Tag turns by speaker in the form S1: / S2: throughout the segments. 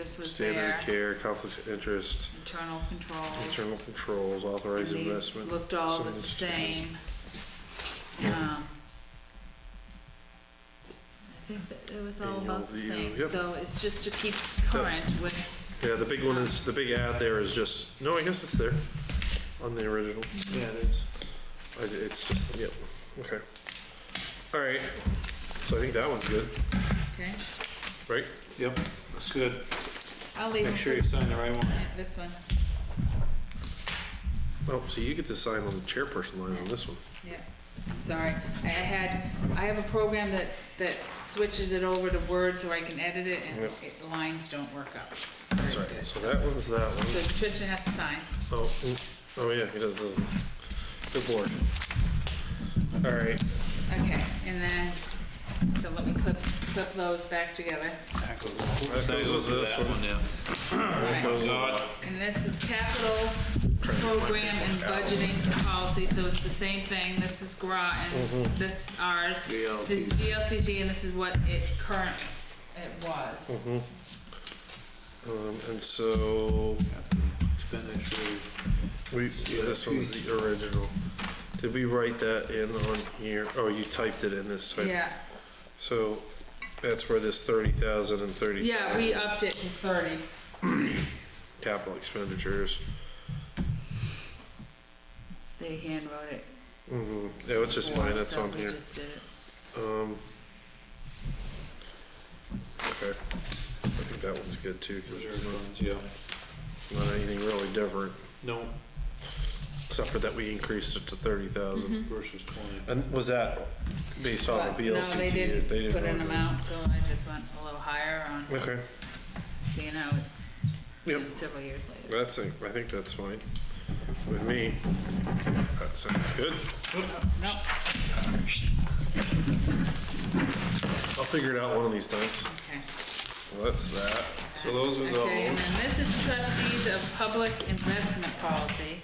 S1: interest was
S2: standard
S1: there,
S2: of care, conflicts of interest,
S1: internal controls.
S2: internal controls,
S1: and
S2: authorized
S1: these
S2: investment.
S1: Looked all
S2: some
S1: the
S2: of it's-
S1: same. Um, I think that it was all
S2: Annual
S1: about the
S2: view,
S1: same,
S2: yep.
S1: so it's just to keep current with,
S2: Yeah, the big one is, the big ad there is just, no, I guess it's there on the original.
S3: Yeah, it is.
S2: I- It's just, yep, okay. All right, so I think that one's good,
S1: okay?
S2: right?
S3: Yep, that's good.
S1: I'll leave
S3: Make
S1: them
S3: sure
S1: for
S3: you sign the right one.
S1: this one,
S2: Oh, see, you get to sign on the chairperson line on this one.
S1: yeah. I'm sorry, I I had, I have a program that, that switches it over to Word so I can edit it and
S2: Yep.
S1: it- the lines don't work out.
S2: That's
S1: very
S2: right.
S1: good.
S2: So that one's that
S1: So
S2: one.
S1: Tristan has to sign.
S2: Oh, mm, oh yeah, he does, doesn't. he? Good lord. All right,
S1: Okay, and then, so let me clip, clip those back together.
S3: That goes
S2: That goes with this one.
S3: yeah.
S1: Alright.
S3: Goes on.
S1: And this is capital program and budgeting policy, so it's the same thing. This is GRA and
S2: Mm-hmm.
S1: that's ours. This is VLCT and this is what it current, it was.
S2: Mm-hmm. um, and so
S3: Expenditure.
S2: we, yeah, this one's the original. Did we write that in on here? Oh, you typed it in this type.
S1: Yeah,
S2: So that's where this thirty thousand and thirty
S1: yeah, we
S2: thousand
S1: upped it to thirty.
S2: capital expenditures.
S1: They handwrote it.
S2: Mm-hmm, yeah, it's just
S1: for
S2: mine,
S1: us,
S2: that's
S1: so
S2: on
S1: we
S2: here.
S1: just did it.
S2: Um, okay, I think that one's good too, because
S3: Reserve
S2: it's not,
S3: funds, yeah.
S2: not anything really different,
S3: No,
S2: except for that we increased it to thirty thousand.
S3: versus twenty.
S2: And was that based off
S1: Mm-hmm. But
S2: of
S1: no,
S2: VLCT?
S1: they didn't put an
S2: really-
S1: amount, so I just went a little higher on,
S2: Okay,
S1: seeing how it's
S2: yep,
S1: several years later.
S2: that's, it. I think that's fine with me. That sounds good.
S1: No,
S2: I'll figure it out one of these times.
S1: okay.
S2: Well, that's that.
S3: So those are the
S1: Okay, and then this is trustees of public investment policy,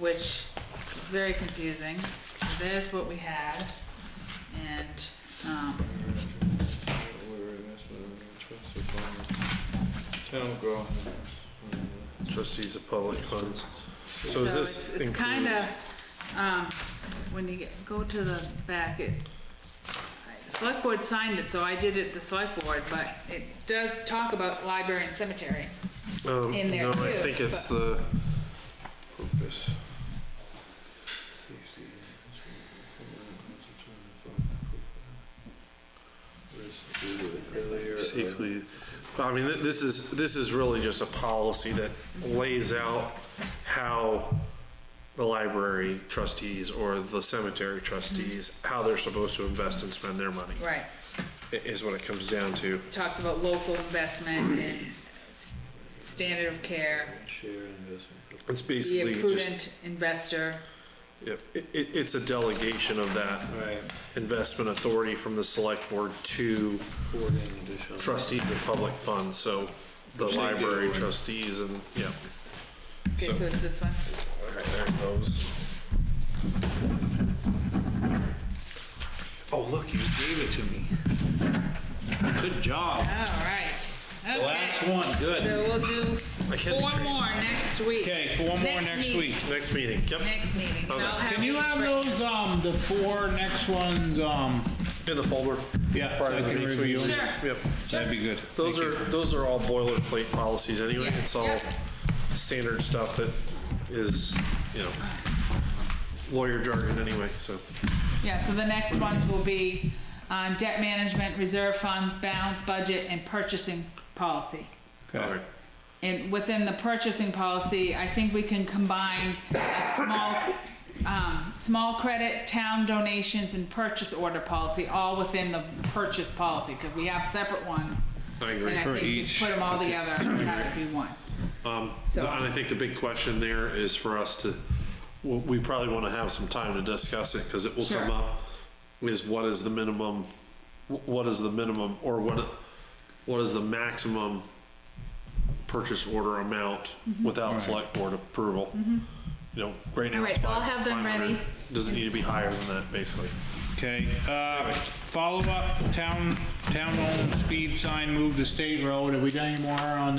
S1: which is very confusing. There's what we had, and, um,
S3: Town growth.
S2: Trustees of public funds.
S1: so
S2: So is this
S1: it's, it's kinda,
S2: included?
S1: um, when you get- go to the back, it, the select board signed it, so I did it the select board, but it does talk about library and cemetery.
S2: Um,
S1: in there
S2: no, I
S1: too,
S2: think it's the,
S3: Purpose.
S2: Safely, but I mean, th- this is, this is really just a policy that lays out how the library trustees or the cemetery trustees, how they're supposed to invest and spend their money,
S1: Right.
S2: i- is what it comes down to.
S1: Talks about local investment and s- standard of care,
S3: Share investment.
S2: It's
S1: be
S2: basically
S1: a
S2: just,
S1: prudent investor.
S2: yep, it, it- it's a delegation of that
S3: Right,
S2: investment authority from the select board to
S3: board and additional.
S2: trustees of public funds, so the
S3: Which they do,
S2: library
S3: right?
S2: trustees and, yeah.
S1: Okay, so it's this one.
S2: All right, there's those.
S3: Oh, look, you gave it to me. Good job.
S1: All right.
S3: The last
S1: Okay.
S3: one, good.
S1: So we'll do
S2: I can't be
S1: four
S2: sure.
S1: more next week.
S3: Okay, four more
S1: Next
S3: next
S1: meet-
S3: week.
S2: Next meeting, yep,
S1: Next meeting. and I'll
S2: Okay.
S1: have
S3: Can you
S1: these
S3: have
S1: for-
S3: those, um, the four next ones, um,
S2: in the folder.
S3: yeah, so
S2: Part
S3: I
S2: of the
S3: can
S2: next week.
S3: review?
S1: Sure.
S2: Yep,
S3: That'd be good.
S2: those are, those are all boilerplate policies anyway,
S1: Yeah,
S2: it's all
S1: yeah.
S2: standard stuff that is, you know, lawyer jargon anyway, so.
S1: Yeah, so the next ones will be um, debt management, reserve funds, balance budget, and purchasing policy.
S2: all right.
S1: And within the purchasing policy, I think we can combine a small, um, small credit, town donations, and purchase order policy, all within the purchase policy, because we have separate ones.
S2: I agree.
S1: And I
S3: For
S1: think just
S3: each,
S1: put them all together, and have it be one.
S2: And I think the big question there is for us to, well, we probably want to have some time to discuss it because it will come
S1: Sure.
S2: up. Is what is the minimum, wh- what is the minimum or what, what is the maximum purchase order amount without select board approval? You know, right
S1: Mm-hmm.
S2: now
S1: All right,
S2: it's
S1: so I'll
S2: five-
S1: have them
S2: 500.
S1: ready.
S2: Doesn't need to be higher than that, basically.
S3: Okay, uh, follow-up, town, town-owned speed sign moved to state road. Have we done any more on